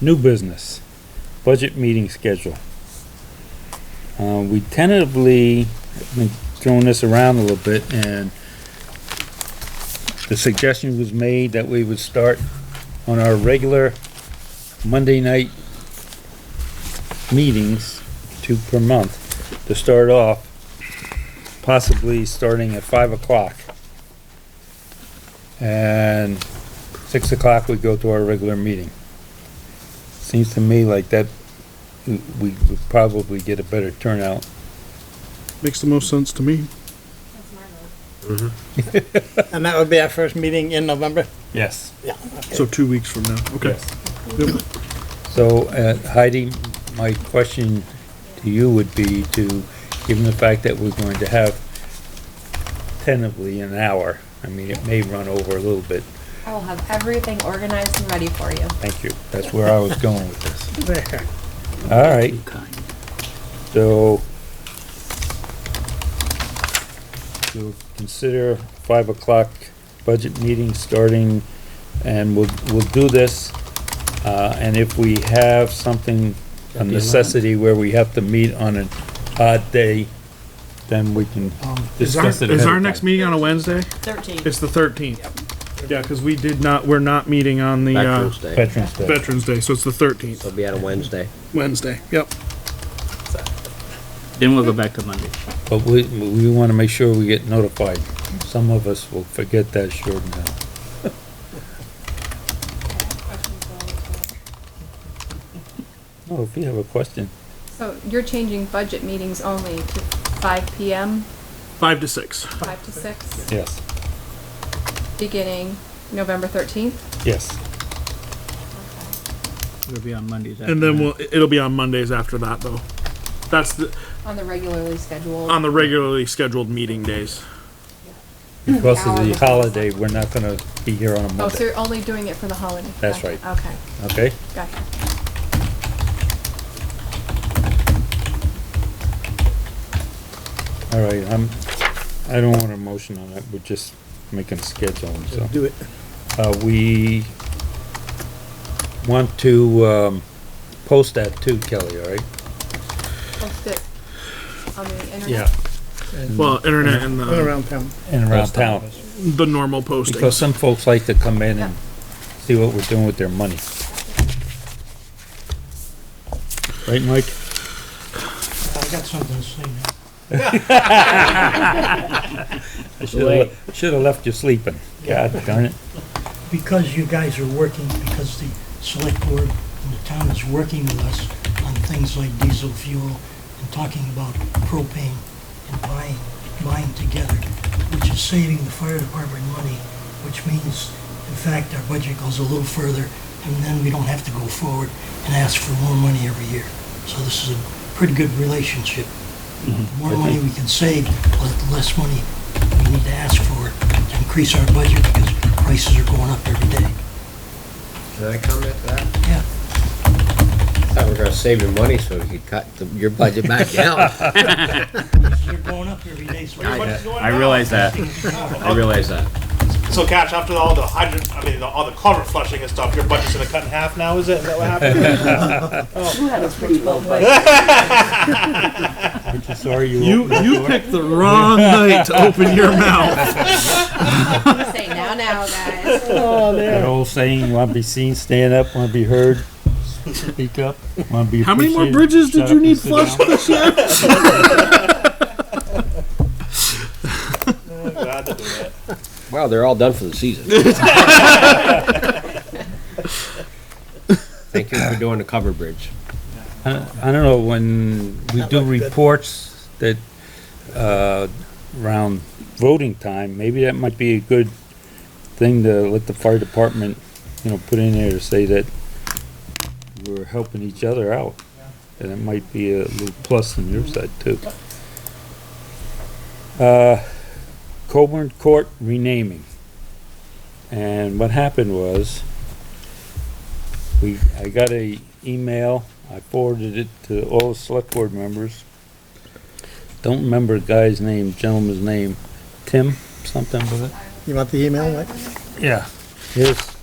New business, budget meeting schedule. Uh, we tentatively, been throwing this around a little bit and the suggestion was made that we would start on our regular Monday night meetings, two per month, to start off, possibly starting at five o'clock. And six o'clock we go to our regular meeting. Seems to me like that, we we would probably get a better turnout. Makes the most sense to me. And that would be our first meeting in November? Yes. Yeah. So two weeks from now, okay. Yep. So uh, Heidi, my question to you would be to, given the fact that we're going to have tentatively an hour, I mean, it may run over a little bit, I will have everything organized and ready for you. thank you, that's where I was going with this. All right. So we'll consider five o'clock budget meeting starting, and we'll, we'll do this. Uh, and if we have something, a necessity where we have to meet on an odd day, then we can Um, Is our, discuss it. is ahead our of next time. meeting on a Wednesday? Thirteenth. It's the thirteenth. Yeah, cause we did not, we're not meeting on the, uh, Veterans Day. Veterans Day. Veterans Day, so it's the thirteenth. It'll be on a Wednesday. Wednesday, yep. Then we'll go back to Monday. But we, we wanna make sure we get notified. Some of us will forget that short now. No, Oh, if you have a question. So you're changing budget meetings only to five PM, Five to six. five to six, Yes. beginning November thirteenth? Yes. It'll be on Mondays. And then we'll, it'll be on Mondays after that though. That's the, On the regularly scheduled. on the regularly scheduled meeting days. Because of Hour the before holiday, we're not gonna be here on a Oh, so Monday, you're only doing it for the holiday? That's Gotcha. right. Okay, okay? gotcha. All right, I'm, I don't want a motion on that, we're just making a schedule, so. Do it. Uh, we want to, um, post that too, Kelly, all right? Post it on the internet? Mm. Well, internet and the, Around town. And around town, the normal posting. because some folks like to come in and see what we're doing with their money. Right, Mike? I got something to say now. Should've le- Should've left you sleeping, god darn it. because you guys are working, because the select board and the town is working with us on things like diesel fuel and talking about propane and buying, buying together, which is saving the fire department money, which means, in fact, our budget goes a little further, and then we don't have to go forward and ask for more money every year. So this is a pretty good relationship. The more money we can save, the less money we need to ask for to increase our budget because prices are going up every day. Can I comment to that? Yeah. I thought we were gonna save your money so you could cut the- your budget back down. They're going up every day, so I realize that. I realize that. So, Cash, after all the hydro, I mean, the, all the culvert flushing and stuff, your budget's gonna cut in half now, is it? Is that what happened? Aren't you sorry you You, opened that you door? picked the wrong night to open your mouth. I'm gonna Say now, now, guys. That old saying, wanna be seen, stand up, wanna be heard, speak up, wanna be How many more appreciated, bridges shut did you up and need sit flushed down. this year? Glad to do that. Well, they're all done for the season. Thank you for doing the cover bridge. I don't know, when we do reports that, uh, around voting time, maybe that might be a good thing to let the fire department, you know, put in there to say that we're helping each other out. And it might be a little plus on your side too. Uh, Coburn Court renaming. And what happened was, we, I got a email, I forwarded it to all the select board members. Don't remember the guy's name, gentleman's name, Tim, something with it? You want the email, Mike? Yeah. His